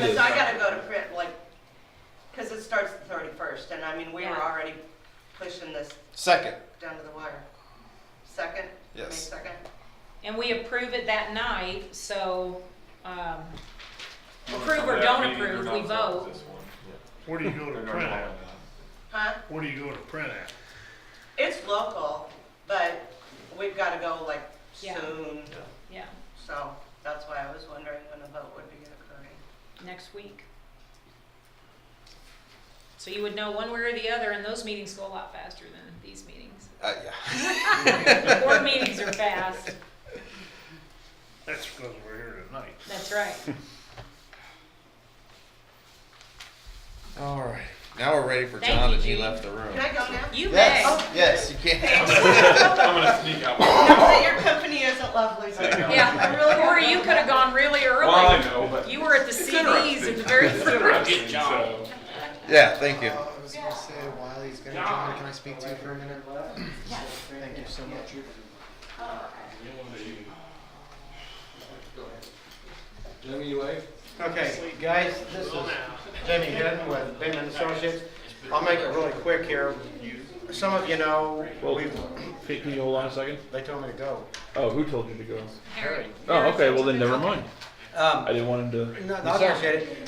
Because is. I gotta go to print, like, because it starts the thirty-first, and I mean, we were Yeah. already pushing this Second, down to the wire. Second? May yes. second? And we approve it that night, so, um, approve or don't approve, we vote. Where do you go to print at? Huh? Where do you go to print at? It's local, but we've gotta go like Yeah. soon, Yeah, so that's why I was wondering when the vote would be occurring. next week. So you would know one way or the other, and those meetings go a lot faster than these meetings. Uh, yeah. Board meetings are fast, That's because we're here tonight. that's right. All right. Now we're ready for Thank John you, that he Gene. left the room. Can I Oh. go now? You may. Yes, yes, you can. I'm gonna sneak out. Well, Now that your company isn't lovely, so. I Yeah. really Yeah, have or no you could have gone really I early. know, but. You were at the It's CDs in the very interesting. first. Interesting, so- Yeah, thank you. Uh, I was gonna say, while he's gonna join, can I speak to you for a minute? Thank you so much. Okay, guys, this is Jamie Gooden with Bingham and Associates. I'll make it really quick here. Some of you know, we've, Pete, Can you hold on a second? they told me to go. Oh, who told you to go? Harry. Oh, okay, well then never mind. Um, I didn't want him to. No, I appreciate it.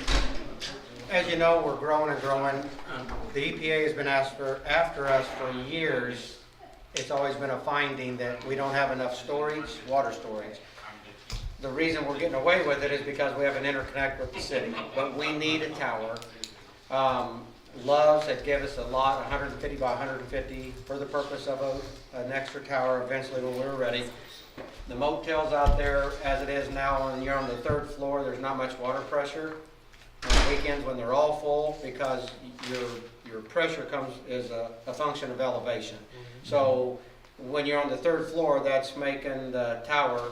As you know, we're growing and growing. Um, The EPA has been asked for, after us for years. It's always been a finding that we don't have enough storage, water storage. The reason we're getting away with it is because we have an interconnect with the city, but we need a tower. Um, Love's had give us a lot, 150 by 150, for the purpose of a- an extra tower eventually when we were ready. The motels out there, as it is now, and you're on the third floor, there's not much water pressure. On weekends, when they're all full, because your, your pressure comes, is a, a function of elevation. So, when you're on the third floor, that's making the tower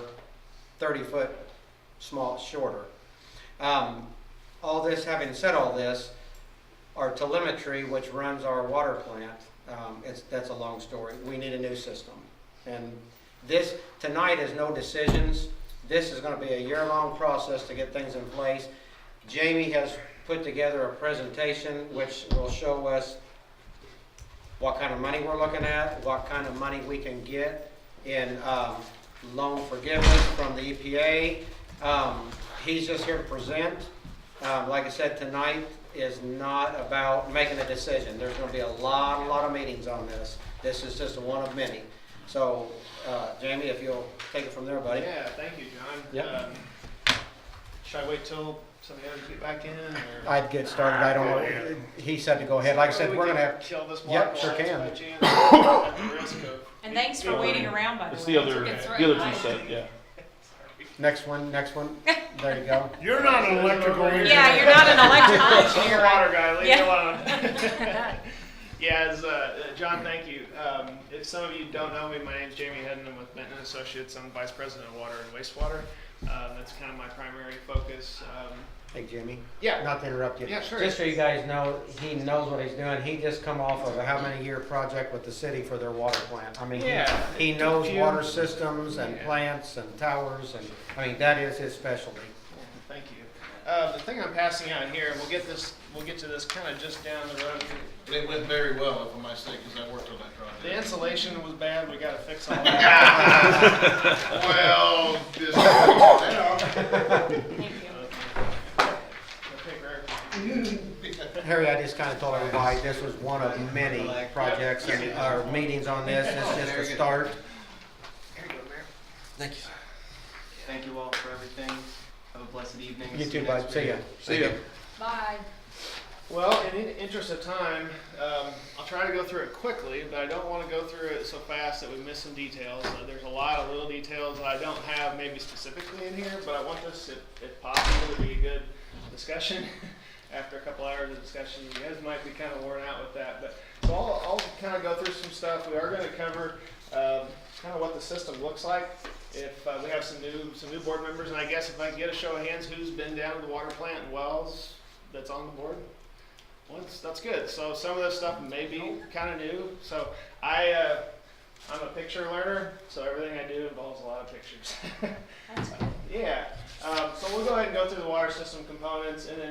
thirty foot small, shorter. Um, all this, having said all this, our telemetry, which runs our water plant, um, it's, that's a long story, we need a new system. And this, tonight is no decisions. This is gonna be a year-long process to get things in place. Jamie has put together a presentation which will show us what kind of money we're looking at, what kind of money we can get in, um, loan forgiveness from the EPA. Um, he's just here to present. Um, like I said, tonight is not about making a decision. There's gonna be a lot, a lot of meetings on this. This is just one of many. So, uh, Jamie, if you'll take it from there, buddy. Yeah, thank you, John. Yep. Um, Should I wait till somebody else get back in or? I'd get started, I don't know, he said to go ahead, like I said, We we're gonna can have, Kill this Yep, block sure while it's can. by chance, at the risk of- And thanks for waiting around, by the way. It's the other, It's the right other behind two you. set, yeah. next one, next one, there you go. You're not an electrical engineer. Yeah, you're not an electrical She's a engineer. water guy, leave me Yeah. alone. Yeah, as, uh, uh, John, thank you. Um, if some of you don't know me, my name's Jamie Hedden, I'm with Benton Associates, I'm Vice President of Water and Wastewater. Um, that's kind of my primary focus, um, Hey, Jimmy. Yeah. Not to interrupt you. Yeah, sure. Just so you guys know, he knows what he's doing. He just come off of a how many year project with the city for their water plant. I mean, he- Yeah. he knows Few- water systems and Yeah. plants and towers and, I mean, that is his specialty. Thank you. Uh, the thing I'm passing out here, and we'll get this, we'll get to this kind of just down the road. It went very well, if I might say, because I worked on that The project. insulation was bad. We got to fix all that. Well, this, now, Thank you. Harry, I just kind of told everybody this was one of many projects and, or meetings on this. It's just Very a good. start. Thank you. Thank you all for everything. Have a blessed evening. You you too, next bud. See ya. See ya. Bye. well, in the interest of time, um, I'll try to go through it quickly, but I don't want to go through it so fast that we miss some details. Uh, there's a lot of little details that I don't have maybe specifically in here, but I want this, if, if possible, to be a good discussion. After a couple hours of discussion, you guys might be kind of worn out with that, but so I'll, I'll kind of go through some stuff. We are going to cover um, kind of what the system looks like. If uh, we have some new some new board members, and I guess if I can get a show of hands, who's been down to the water plant in Wells that's on the board? Once that's good. So some of this stuff may be kind of new. So I uh, I'm a picture learner, so everything I do involves a lot of pictures. That's yeah. Um, so we'll go ahead and go through the water system components, and then